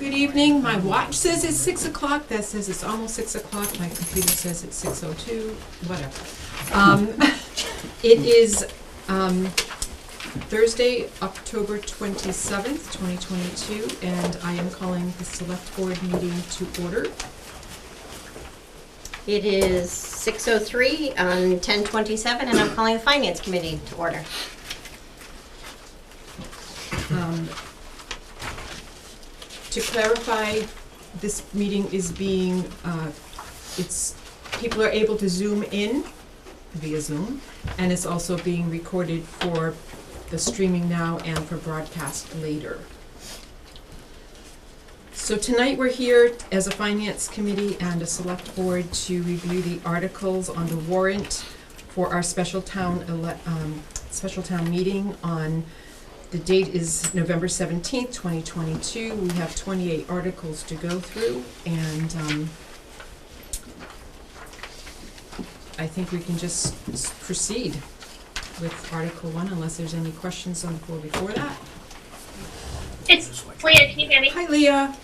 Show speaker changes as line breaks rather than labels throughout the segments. evening. My watch says it's six o'clock, that says it's almost six o'clock, my computer says it's six oh two, whatever. Um, It is um, Thursday, October twenty-seventh, twenty twenty-two, and I am calling the select board meeting to order.
It is 6:03 on 10:27, and I'm calling the Finance Committee to order.
Um, To clarify, this meeting is being, uh, it's, people are able to zoom in via Zoom, and it's also being recorded for the streaming now and for broadcast later. So tonight, we're here as a finance committee and a select board to review the articles on the warrant for our special town ele- um, special town meeting on the date is November seventeenth, twenty twenty-two. We have twenty-eight articles to go through, and, um, I think we can just s- proceed with Article One, unless there's any questions on the floor before that.
It's Leah, can you hear me?
Hi, Leah.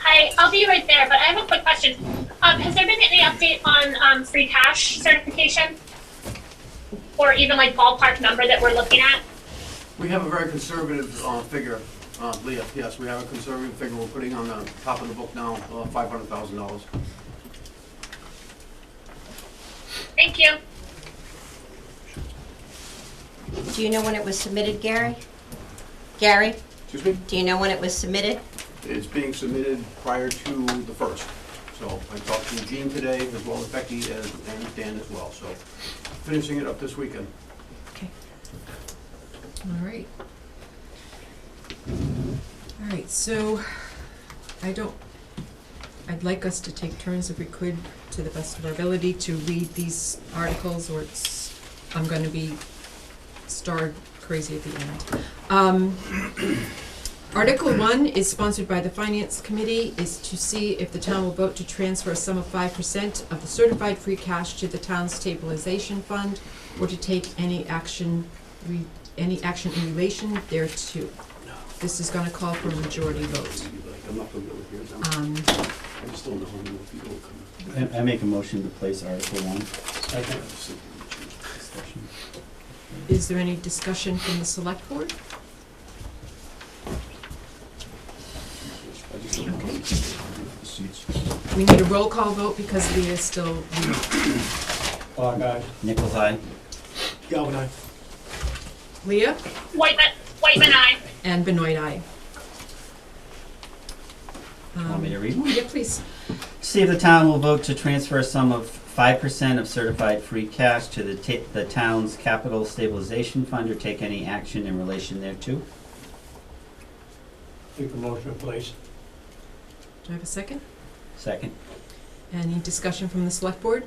Hi, I'll be right there, but I have a quick question. Um, has there been any update on, um, free cash certification? Or even like ballpark number that we're looking at?
We have a very conservative uh, figure, uh, Leah, yes, we have a conservative figure we're putting on the top of the book now, uh, $500,000.
Thank you.
Do you know when it was submitted, Gary? Gary,
Excuse me?
do you know when it was submitted?
It's being submitted prior to the first. So I talked to Jean today, as well as Becky and and Dan as well, so finishing it up this weekend.
Okay. All right. All right, so I don't, I'd like us to take turns if we could, to the best of our ability, to read these articles or it's, I'm gonna be starred crazy at the end. Um, Article one is sponsored by the Finance Committee, is to see if the town will vote to transfer a sum of five percent of the certified free cash to the town's stabilization fund or to take any action, re- any action in relation thereto. This is gonna call for a majority vote.
I'm not going to go here now.
Um,
I just don't know how many people will come.
I, I make a motion to place Article One.
is there any discussion from the select board?
I just don't know how many people will come.
We need a roll call vote because Leah is still,
Clock eye.
Nichols Eye.
Galvin eye.
Leah
White man, white man eye.
and Benoit I. Um,
Want me to read?
Yeah, please.
See if the town will vote to transfer a sum of five percent of certified free cash to the ta- the town's capital stabilization fund or take any action in relation thereto.
Make a motion, please.
Do I have a second?
Second.
Any discussion from the select board?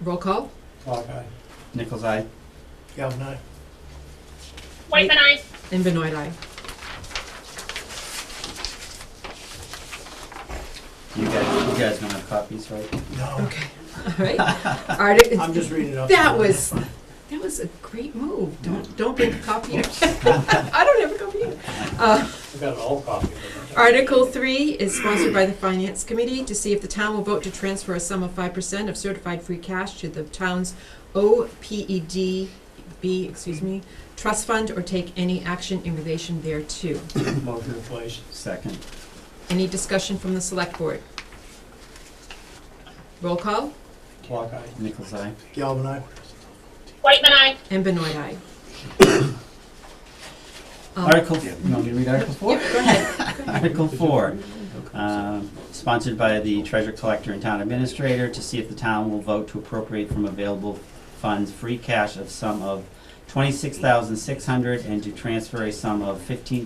Roll call?
Clock eye.
Nichols Eye.
Galvin eye.
White man eye.
And Benoit I.
You guys, you guys don't have copies, right?
No.
Okay, all right. Arti-
Oh. I'm just reading it off. the
That
board.
was, that was a great move. Don't, don't bring a copy. I don't have a copy either. Uh,
I got an old copy. of it.
Article three is sponsored by the Finance Committee to see if the town will vote to transfer a sum of five percent of certified free cash to the town's OPEDB, excuse me, trust fund or take any action in relation thereto.
Motion, please.
Second.
Any discussion from the select board? Roll call
Clock eye.
Nichols Eye.
Galvin eye.
White man eye.
and Benoit I. Um,
Article, you want me to read Article Four?
Yep, go ahead.
Article four, um, sponsored by the treasurer collector and town administrator to see if the town will vote to appropriate from available funds free cash of sum of twenty-six thousand six hundred and to transfer a sum of fifteen